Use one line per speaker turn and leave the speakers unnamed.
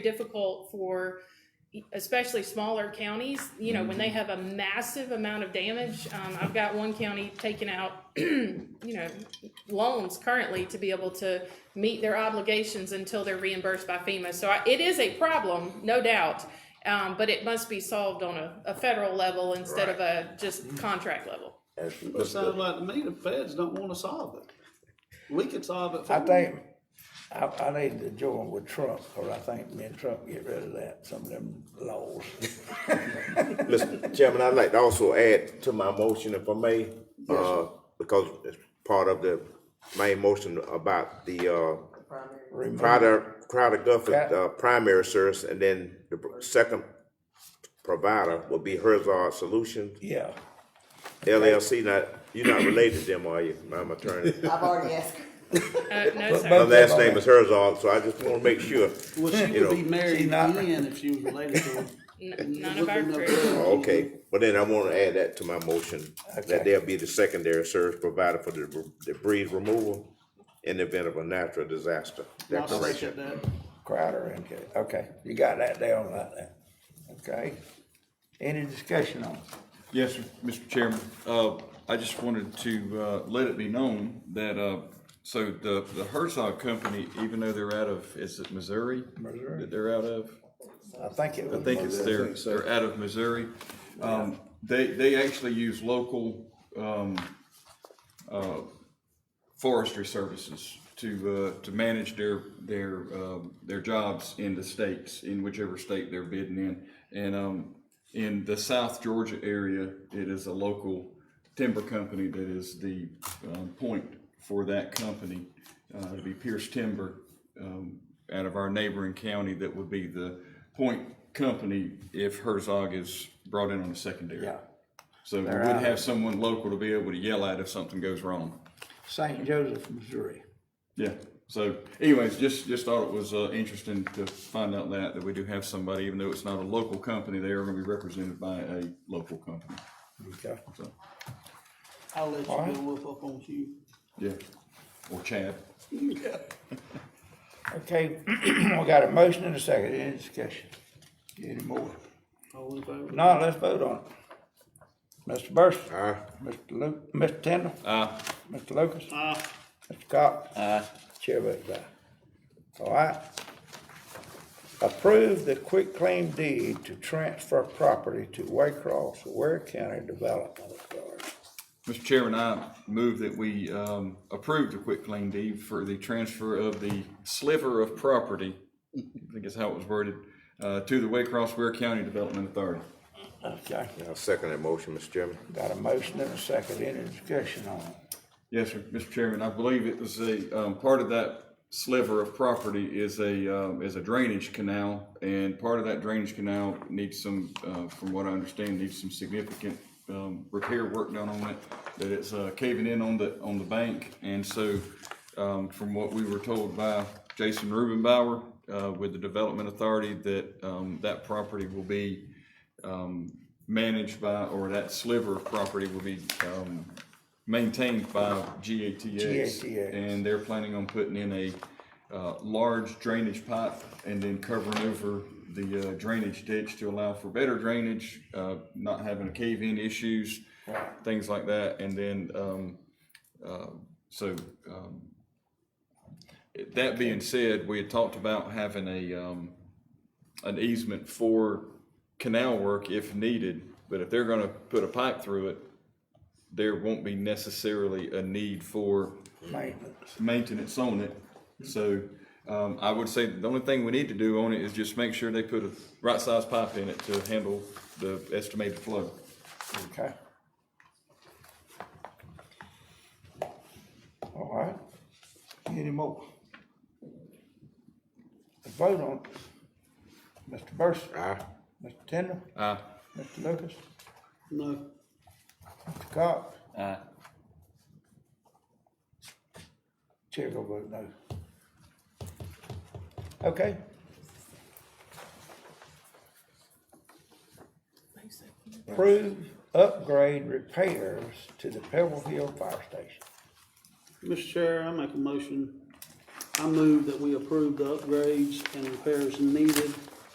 difficult for e, especially smaller counties, you know, when they
Mm-hmm.
have a massive amount of damage. Um, I've got one county taking out, you know, loans currently to be able to meet their obligations until they're reimbursed by FEMA. So I, it is a problem, no doubt, um, but it must be solved on a, a federal level instead of a just contract level.
That's-
It sounds like to me the feds don't wanna solve it. We could solve it for
I
them.
think, I, I need to join with Trump, cause I think me and Trump get rid of that, some of them laws.
Mr. Chairman, I'd like to also add to my motion if I may, uh, because it's part of the main motion about the, uh, Crowder, Crowder Guffey, uh, primary service, and then the second provider will be Herzog Solutions
Yeah,
LLC. Now, you're not related to them, are you? I'm attorney.
I've already asked.
Uh, no, sir.
My last name is Herzog, so I just wanna make sure.
Well, she
you
could be
know.
married
She not-
again if she was related to him.
N- None of our
Looking up
crew.
there.
Okay, well then I wanna add that to my motion,
Okay.
that there'll be the secondary service provided for the debr- debris removal in the event of a natural disaster
I'll
declaration.
second that.
Crowder, okay, okay, you got that down like that, okay? Any discussion on it?
Yes, sir, Mr. Chairman. Uh, I just wanted to, uh, let it be known that, uh, so the, the Herzog Company, even though they're out of, is it Missouri?
Missouri.
That they're out of?
I think it
I
was.
think it's their, they're out of Missouri. Um, they, they actually use local, um, uh, forestry services to, uh, to manage their, their, um, their jobs in the states, in whichever state they're bidding in. And, um, in the South Georgia area, it is a local timber company that is the, um, point for that company. Uh, it'd be Pierce Timber, um, out of our neighboring county that would be the point company if Herzog is brought in on the secondary.
Yeah,
So we would
They're out.
have someone local to be able to yell at if something goes wrong.
St. Joseph, Missouri.
Yeah, so anyways, just, just thought it was, uh, interesting to find out that, that we do have somebody, even though it's not a local company, they are gonna be represented by a local company,
Okay.
so,
I'll let you
Alright.
go whoop up on you.
yeah. Or Chad.
Okay, we got a motion and a second, any discussion? Any more?
All in favor?
No, let's vote on it. Mr. Burson?
Aye.
Mr. Lu, Mr. Tindall?
Uh,
Mr. Lucas?
Aye.
Mr. Cox? Aye. Chair votes aye. All right. Approve the quick claim deed to transfer property to Waycross, Ware County Development Authority.
Mr. Chairman, I move that we um, approve the quitclaim deed for the transfer of the sliver of property, I think is how it was worded, uh, to the Waycross Ware County Development Authority.
Okay,
I'll second that motion, Mr. Chairman.
got a motion and a second, any discussion on it?
Yes, sir, Mr. Chairman, I believe it was a, um, part of that sliver of property is a, um, is a drainage canal, and part of that drainage canal needs some, uh, from what I understand, needs some significant, um, repair work done on it, that it's, uh, caving in on the, on the bank, and so, um, from what we were told by Jason Rubenbauer, uh, with the Development Authority, that, um, that property will be, managed by, or that sliver of property will be, um, maintained by GATX.
GATX.
And they're planning on putting in a, uh, large drainage pipe and then covering over the uh, drainage ditch to allow for better drainage, uh, not having cave-in issues, things like that, and then, um, so, um, that being said, we had talked about having a, um, an easement for canal work if needed, but if they're gonna put a pipe through it, there won't be necessarily a need for
Maintenance.
maintenance on it. So, um, I would say the only thing we need to do on it is just make sure they put a right size pipe in it to handle the estimated flow.
Okay. All right, any more? The vote on, it. Mr. Burson,
Aye.
Mr. Tindall,
Uh,
Mr. Lucas,
No,
Mr. Cox. Aye. Chair will vote no. Okay, approve upgrade repairs to the Pebble Hill Fire Station.
Mr. Chair, I make a motion I move that we approve the upgrades and repairs needed